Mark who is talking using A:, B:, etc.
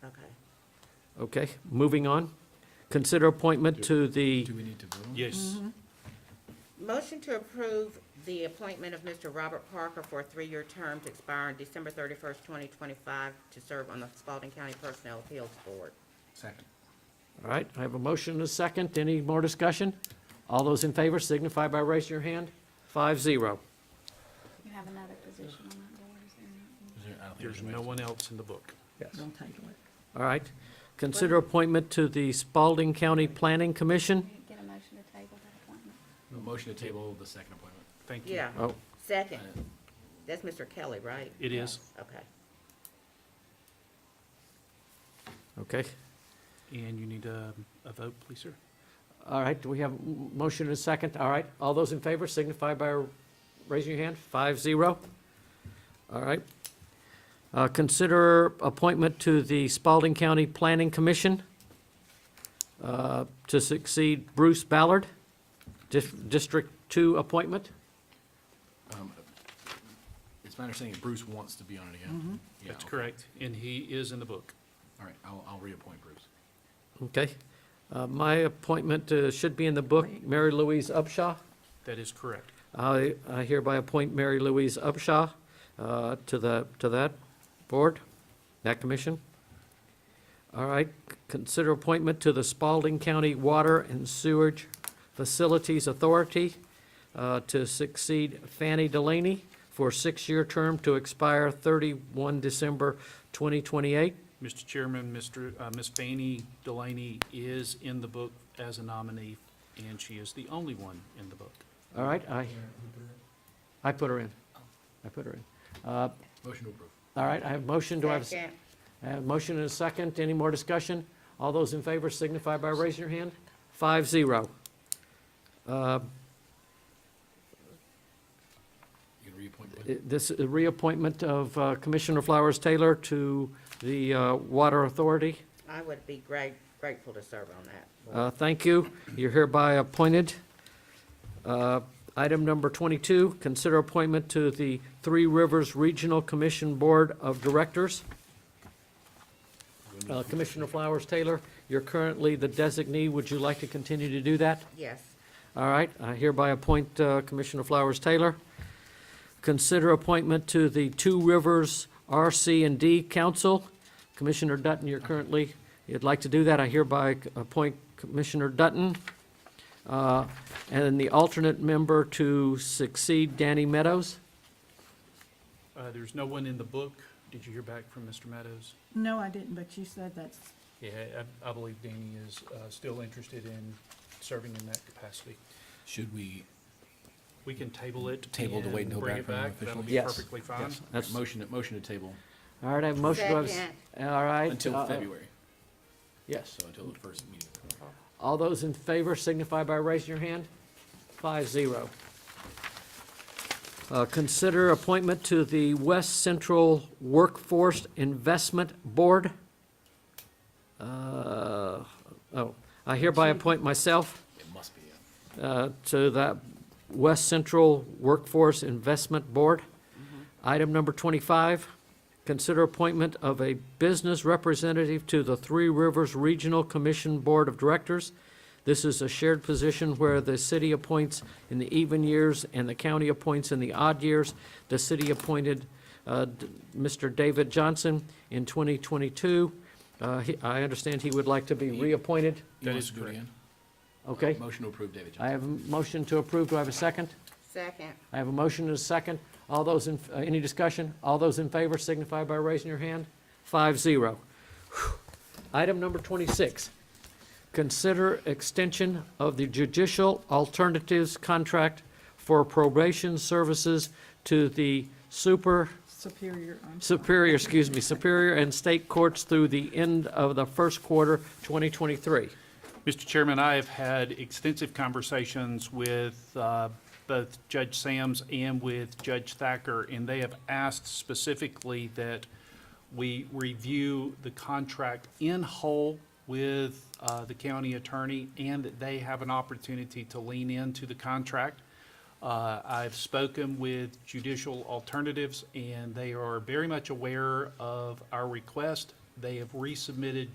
A: Okay, moving on. Consider appointment to the,
B: Do we need to vote on? it?
C: Yes.
D: Motion to approve the appointment of Mr. Robert Parker for a three-year term to expire on December thirty-first, twenty twenty-five, to serve on the Spalding County Personnel Appeals Board.
B: Second.
A: all right, I have a motion and a second. Any more discussion? All those in favor signify by raising your hand. Five zero.
E: You have another position on that board, is there not?
B: Is there- I don't think
C: There's
B: anybody-
C: no one else in the book.
F: Don't title it.
A: All right. Consider appointment to the Spalding County Planning Commission.
E: Can you Get a motion to table that appointment.
B: A Motion to table the second appointment.
C: Thank you.
D: Yeah,
A: Oh,
D: second. That's Mr. Kelly, right?
C: It is.
D: Okay.
A: okay.
C: And you need a, a vote, please, sir?
A: All right, do we have a m- motion and a second? All right, all those in favor signify by raising your hand, five zero. All right. Uh, Consider appointment to the Spalding County Planning Commission uh, to succeed Bruce Ballard, Dis- District Two appointment.
B: Um, It's my understanding that Bruce wants to be on it
A: Mm-hmm.
B: again. Yeah,
C: That's
B: okay.
C: correct, and he is in the book.
B: All right, I'll, I'll reappoint Bruce.
A: Okay. Uh, My appointment uh, should be in the book, Mary Louise Upshaw.
C: That is correct.
A: I I hereby appoint Mary Louise Upshaw uh, to the, to that board, that commission. All right, consider appointment to the Spalding County Water and Sewage Facilities Authority uh, to succeed Fanny Delaney for a six-year term to expire 31 December 2028.
C: Mr. Chairman, Mr., uh, Ms. Fanny Delaney is in the book as a nominee, and she is the only one in the book.
A: All right, I, I put her in. I put her in. Uh,
B: Motion to approve.
A: All right, I have motion, do I have a
D: Second.
A: I have a Uh, motion and a second. Any more discussion? All those in favor signify by raising your hand. Five zero. Uh,
B: You can reappoint. Blake.
A: it- Uh, This reappointment of uh, Commissioner Flowers Taylor to the uh, Water Authority.
D: I would be great, grateful to serve on that.
A: Uh, Thank you. You're hereby appointed. Uh, Item number 22, consider appointment to the Three Rivers Regional Commission Board of Directors. Uh, Commissioner Flowers Taylor, you're currently the designee. Would you like to continue to do that?
D: Yes.
A: All right, I hereby appoint uh, Commissioner Flowers Taylor. Consider appointment to the Two Rivers RC and D Council. Commissioner Dutton, you're currently, you'd like to do that, I hereby appoint Commissioner Dutton. uh, And the alternate member to succeed Danny Meadows.
C: Uh, There's no one in the book. Did you hear back from Mr. Meadows?
F: No, I didn't, but you said that's,
C: Yeah, I, I believe Danny is uh, still interested in serving in that capacity.
B: Should we,
C: We can table it.
B: Table to wait
C: and
B: until back
C: bring it
B: from official?
C: That'll be
A: Yes.
C: perfectly fine.
A: That's-
B: motion, motion to table
A: All right, I have a motion. to have s- All right.
B: until
A: uh,
B: February,
A: Yes.
B: so until the first meeting.
A: All those in favor signify by raising your hand. Five zero. Uh, Consider appointment to the West Central Workforce Investment Board. Uh, Oh, I hereby appoint myself
B: It must be, yeah.
A: uh, to that West Central Workforce Investment Board. Item number 25, consider appointment of a business representative to the Three Rivers Regional Commission Board of Directors. This is a shared position where the city appoints in the even years and the county appoints in the odd years. The city appointed uh, D- Mr. David Johnson in 2022. Uh, he- I understand he would like to be reappointed,
B: He
C: That
B: wants
C: is
B: to do it
C: correct.
B: again?
A: okay?
B: Motion to approve David
A: I
B: Johnson.
A: have a motion to approve. Do I have a second?
D: Second.
A: I have a motion and a second. All those in, uh, any discussion? All those in favor signify by raising your hand. Five zero. Whew. Item number twenty-six. Consider extension of the judicial alternatives contract for probation services to the super,
F: Superior, I'm sorry.
A: superior, excuse me, superior and state courts through the end of the first quarter twenty twenty-three.
C: Mr. Chairman, I have had extensive conversations with uh, both Judge Sams and with Judge Thacker, and they have asked specifically that we review the contract in whole with uh, the county attorney and that they have an opportunity to lean into the contract. Uh, I've spoken with Judicial Alternatives, and they are very much aware of our request. They have resubmitted